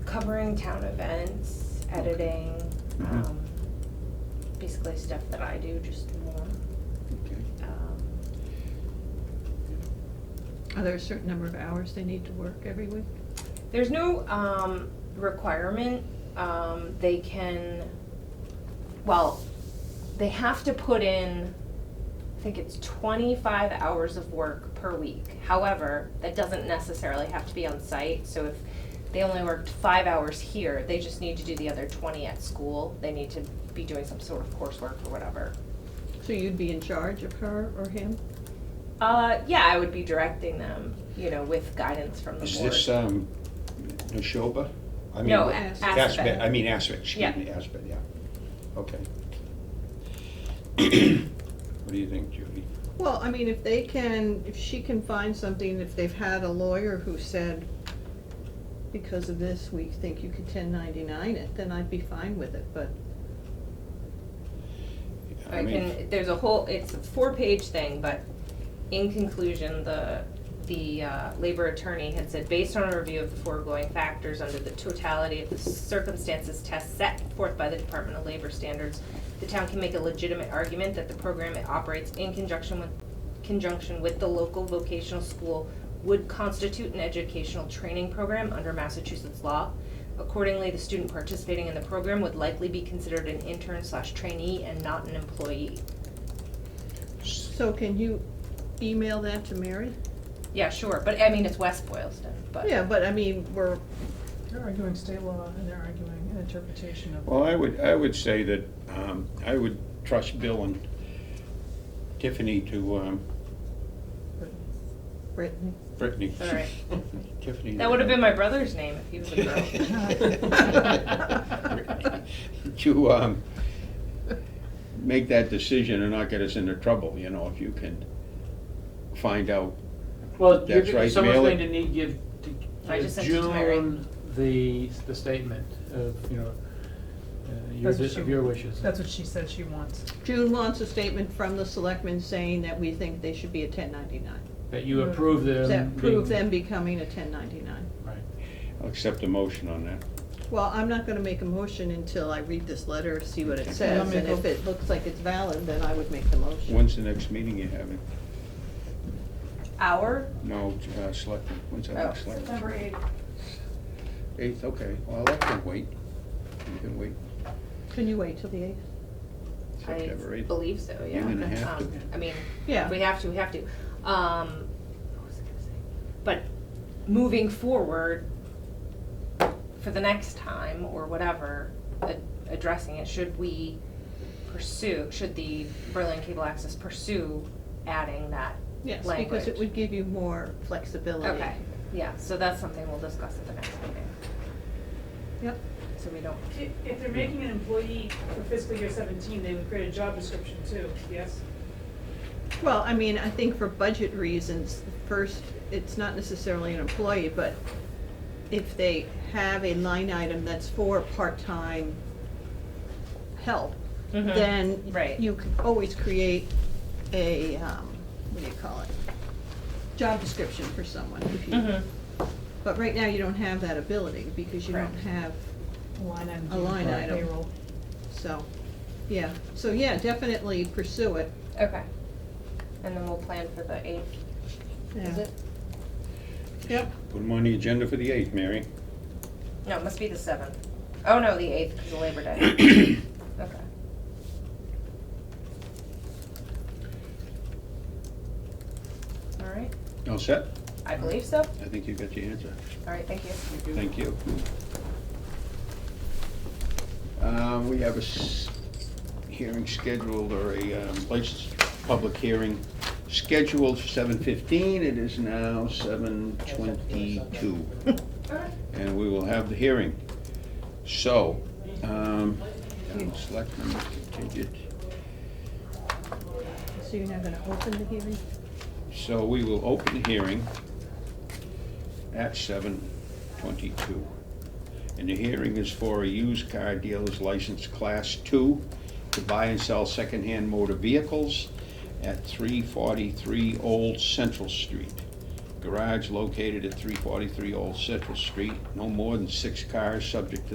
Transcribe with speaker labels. Speaker 1: covering town events, editing,
Speaker 2: Mhm.
Speaker 1: um, basically stuff that I do, just more.
Speaker 2: Okay.
Speaker 1: Um,
Speaker 3: Are there a certain number of hours they need to work every week?
Speaker 1: There's no, um, requirement, um, they can, well, they have to put in, I think it's twenty-five hours of work per week. However, that doesn't necessarily have to be on site, so if they only worked five hours here, they just need to do the other twenty at school. They need to be doing some sort of coursework or whatever.
Speaker 3: So you'd be in charge of her or him?
Speaker 1: Uh, yeah, I would be directing them, you know, with guidance from the
Speaker 2: Is
Speaker 1: board.
Speaker 2: this, um, Neshoba? I mean,
Speaker 1: No,
Speaker 2: what-
Speaker 1: A-
Speaker 2: Aspet, I
Speaker 1: Aspet.
Speaker 2: mean Aspet, excuse
Speaker 1: Yeah.
Speaker 2: me, Aspet, yeah. Okay. What do you think, Judy?
Speaker 3: Well, I mean, if they can, if she can find something, if they've had a lawyer who said, because of this, we think you could ten ninety-nine it, then I'd be fine with it, but,
Speaker 1: I
Speaker 2: mean,
Speaker 1: can, there's a whole, it's a four-page thing, but in conclusion, the, the uh, labor attorney had said, based on a review of the foregoing factors under the totality of the circumstances test set forth by the Department of Labor Standards, the town can make a legitimate argument that the program it operates in conjunction with, conjunction with the local vocational school would constitute an educational training program under Massachusetts law. Accordingly, the student participating in the program would likely be considered an intern slash trainee and not an employee.
Speaker 3: so can you email that to Mary?
Speaker 1: Yeah, sure, but I mean, it's West Boylston, but.
Speaker 3: Yeah, but I mean, we're,
Speaker 4: They're arguing state law and they're arguing an interpretation of.
Speaker 2: Well, I would, I would say that, um, I would trust Bill and Tiffany to, um,
Speaker 3: Brittany,
Speaker 2: Brittany.
Speaker 1: All right.
Speaker 2: Tiffany.
Speaker 1: That would have been my brother's name if he was a girl.
Speaker 2: To, um, make that decision and not get us into trouble, you know, if you can find out
Speaker 5: Well, you're,
Speaker 2: That's right,
Speaker 5: g- someone's
Speaker 2: mail it.
Speaker 5: going to need give, to
Speaker 1: I
Speaker 5: give
Speaker 1: just sent it to Mary.
Speaker 5: June the, the statement of, you know, uh, your,
Speaker 4: That's what
Speaker 5: dis- of
Speaker 4: she-
Speaker 5: your wishes.
Speaker 4: That's what she said she wants.
Speaker 3: June wants a statement from the selectmen saying that we think they should be a ten ninety-nine.
Speaker 5: That you approve them.
Speaker 3: That
Speaker 5: being-
Speaker 3: prove them becoming a ten ninety-nine.
Speaker 5: Right.
Speaker 2: I'll accept a motion on that.
Speaker 3: Well, I'm not gonna make a motion until I read this letter, see what it
Speaker 4: Yeah, I'll
Speaker 3: says, and
Speaker 4: make a-
Speaker 3: if it looks like it's valid, then I would make the motion.
Speaker 2: When's the next meeting you're having?
Speaker 1: Our,
Speaker 2: No, uh, selectmen, when's that
Speaker 1: Oh.
Speaker 2: next selectmen? September eighth. Eighth, okay, well, that can wait. You can wait
Speaker 3: Can you wait till the eighth?
Speaker 1: I
Speaker 2: September eighth.
Speaker 1: believe so, yeah.
Speaker 2: You're gonna have to.
Speaker 1: Um, I mean,
Speaker 3: Yeah.
Speaker 1: if we have to, we have to. Um, what was I gonna say? But moving forward, for the next time or whatever, a- addressing it, should we pursue, should the Berlin Cable Access pursue adding that
Speaker 3: Yes,
Speaker 1: language?
Speaker 3: because it would give you more flexibility.
Speaker 1: Okay, yeah, so that's something we'll discuss at the next meeting,
Speaker 3: Yep.
Speaker 1: so we don't,
Speaker 6: If if they're making an employee for fiscal year seventeen, they would create a job description too, yes?
Speaker 3: Well, I mean, I think for budget reasons, first, it's not necessarily an employee, but if they have a line item that's for part-time help,
Speaker 1: Mhm.
Speaker 3: then
Speaker 1: Right.
Speaker 3: you could always create a, um, what do you call it? Job description for someone if you-
Speaker 1: Mhm.
Speaker 3: But right now, you don't have that ability because you don't
Speaker 1: Correct.
Speaker 3: have,
Speaker 4: A line item.
Speaker 3: A line
Speaker 4: for
Speaker 3: item.
Speaker 4: Payroll.
Speaker 3: so, yeah. So, yeah, definitely pursue it.
Speaker 1: okay. And then we'll plan for the eighth, is
Speaker 3: Yeah.
Speaker 1: it?
Speaker 3: Yep.
Speaker 2: Put them on the agenda for the eighth, Mary.
Speaker 1: No, it must be the seventh. Oh, no, the eighth, because of Labor Day. Okay. All right,
Speaker 2: All set?
Speaker 1: I believe so. All
Speaker 2: I think you got your answer.
Speaker 1: right, thank you.
Speaker 2: Thank you. Um, we have a s- hearing scheduled, or a, um, place, public hearing scheduled for seven fifteen. It is now seven twenty-two. And we will have the hearing. So, um, town selectmen contingent.
Speaker 3: So you're not gonna open the hearing?
Speaker 2: So we will open the hearing at seven twenty-two. And the hearing is for a used car dealer's license class two to buy and sell secondhand motor vehicles at three forty-three Old Central Street. garage located at three forty-three Old Citrus Street, no more than six cars, subject to